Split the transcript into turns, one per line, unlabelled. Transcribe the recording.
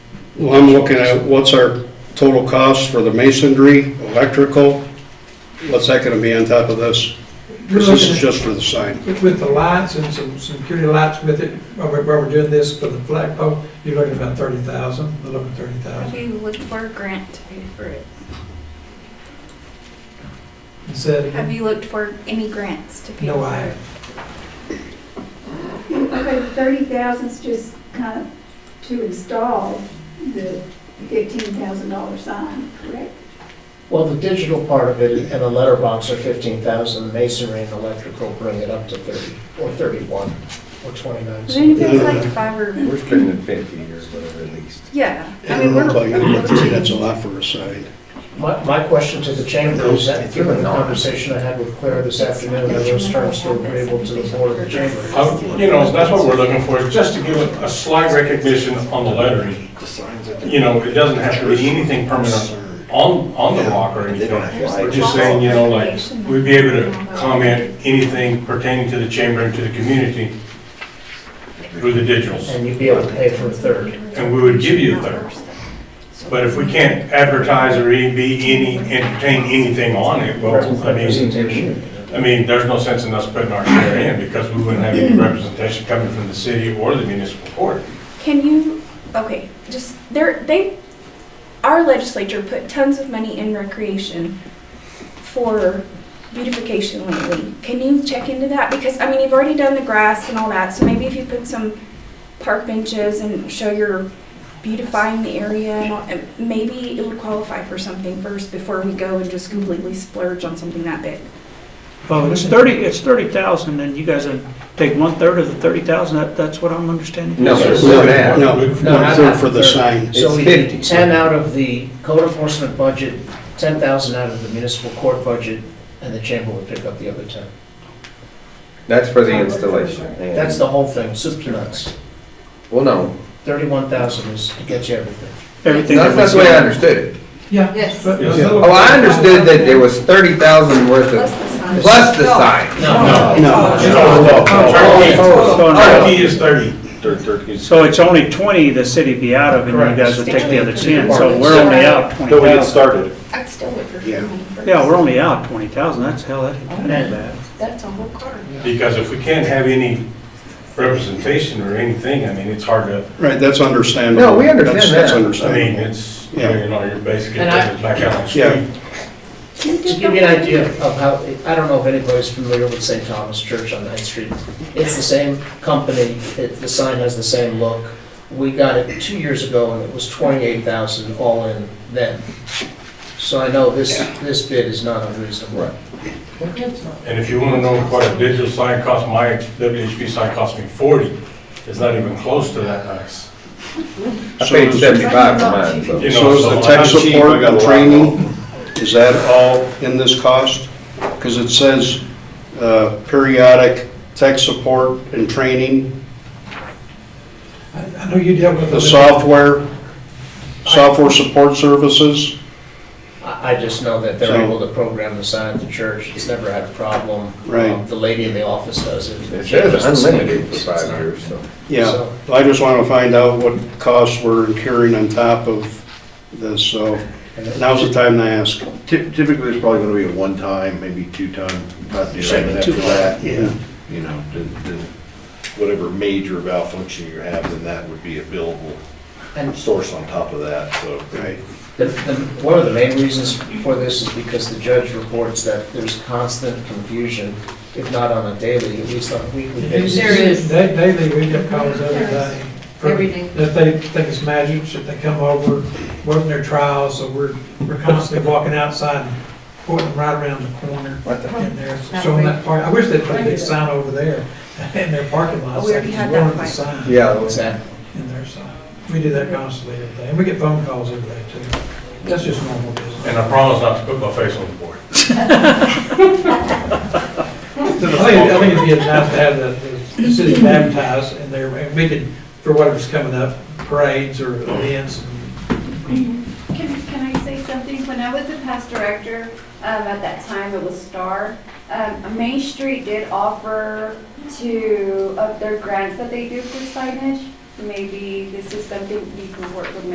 Well, I'm looking at what's our total cost for the masonry, electrical, what's that gonna be on top of this?
You're
Because this
looking
is
at-
just for the sign.
With with the lights and some some security lights with it, while we're while we're doing this for the flagpole, you're looking at about thirty thousand, a little over thirty
What
thousand.
are you looking for a grant to pay for it?
And said,
Mm-hmm.
Have you looked for any grants to pay
No,
for
I
it?
Okay, thirty thousand's just kind of to install the fifteen thousand dollar sign, correct?
Well, the digital part of it and the letterbox are fifteen thousand, masonry and electrical bring it up to thirty, or thirty-one, or twenty-nine.
Then
so-
if it's like five or,
We're spending fifty or whatever at least.
yeah. I
I don't
mean,
know
we're.
about you, but to me, that's a lot for a sign.
My, my question to the chamber is that, given the conversation I had with Claire this afternoon, are those terms still agreeable to the board of the chamber?
Uh, You know, that's what we're looking for, is just to give a a slight recognition on the lettering. You know, it doesn't have to be anything permanent on, on the rock or anything. We're just saying, you know, like, we'd be able to comment anything pertaining to the chamber and to the community through the digitals.
And you'd be able to pay for a third.
And we would give you a third. But if we can't advertise or e- be any, entertain anything on it, well, I mean,
Representation.
I mean, there's no sense in us putting our share in because we wouldn't have any representation coming from the city or the municipal court.
Can you, okay, just, there, they, our legislature put tons of money in recreation for beautification lately. Can you check into that? Because, I mean, you've already done the grass and all that, so maybe if you put some park benches and show you're beautifying the area, and all- and maybe it would qualify for something first before we go and just completely splurge on something that big.
Well, it's thirty, it's thirty thousand, and you guys uh, take one-third of the thirty thousand, that, that's what I'm understanding?
No, it's not that.
No, one-third for the sign.
So
It's
we did
50.
ten out of the code enforcement budget, ten thousand out of the municipal court budget, and the chamber would pick up the other ten.
That's for the installation. and-
That's the whole thing, soup to nuts.
Well, no,
Thirty-one thousand is, it gets you everything.
Everything that
that's that's the
we
way
said.
I understood it.
yeah.
Yes.
but-
Yes.
but-
Oh, I understood that there was thirty thousand worth of, plus the sign.
No,
Turnkey is thirty.
So it's only twenty the city be out of, and
Correct.
you guys would take the other ten, so
Departments.
we're only out twenty thousand.
started.
I'd still wait for
Yeah.
money first.
Yeah, we're only out twenty thousand, that's hell, that ain't that ain't bad.
That's a whole card.
Because if we can't have any representation or anything, I mean, it's hard to,
Right, that's understandable.
No, we understand
That's- That's
that.
I mean,
understandable.
it's, you know, you're basically putting it back out on the
Yeah.
street.
To give you an idea of how, I don't know if anybody's familiar with St. Thomas Church on Ninth Street. It's the same company, it, the sign has the same look. We got it two years ago and it was twenty-eight thousand all in then. So I know this, this bid is not unreasonable.
And if you want to know what a digital sign cost, my WHP sign cost me forty. It's not even close to that nice.
I
So
paid
is-
seventy-five for mine, so.
You know,
So is the
I'm
tech
cheap, I
support
got a
and
lot.
training, is that all in this cost? Because it says uh, periodic tech support and training,
I I know you dealt with.
the
the-
software, software support services.
I, I just know that they're
So-
able to program the sign at the church, it's never had a problem.
Right.
Um, The lady in the office does it.
It says unlimited for five years, so.
Yeah,
So-
I just want to find out what costs we're incurring on top of this, so now's the time to ask.
Ty- Typically, it's probably gonna be a one-time, maybe two-time, not do
Sure,
anything
two.
after that.
Yeah.
You know, the, the, whatever major malfunction you have, then that would be a billable
And-
source on top of that, so.
Right.
The- the- One of the main reasons for this is because the judge reports that there's constant confusion, if not on a daily, at least on a weekly
There
basis.
is.
Da- Daily, we get calls every day. from-
Every day.
That they think it's magic, should they come over, working their trials, so we're, we're constantly walking outside and pointing them right around the corner
What the heck?
in there, showing that part. I wish they'd put a big sign over there in their parking lot.
Oh, we already
so
had
there's
that
one
fight.
sign
Yeah.
Exactly.
In there, so, we do that constantly every day, and we get phone calls every day too. That's just normal business.
And I promise not to put my face on the board.
I think, I think it'd be nice to have the, the city baptized in there, and we could, for whatever's coming up, parades or events.
Can, can I say something? When I was the past director, um, at that time, it was Star, um, Main Street did offer to, of their grants that they do for signage, maybe this is something you can work with Main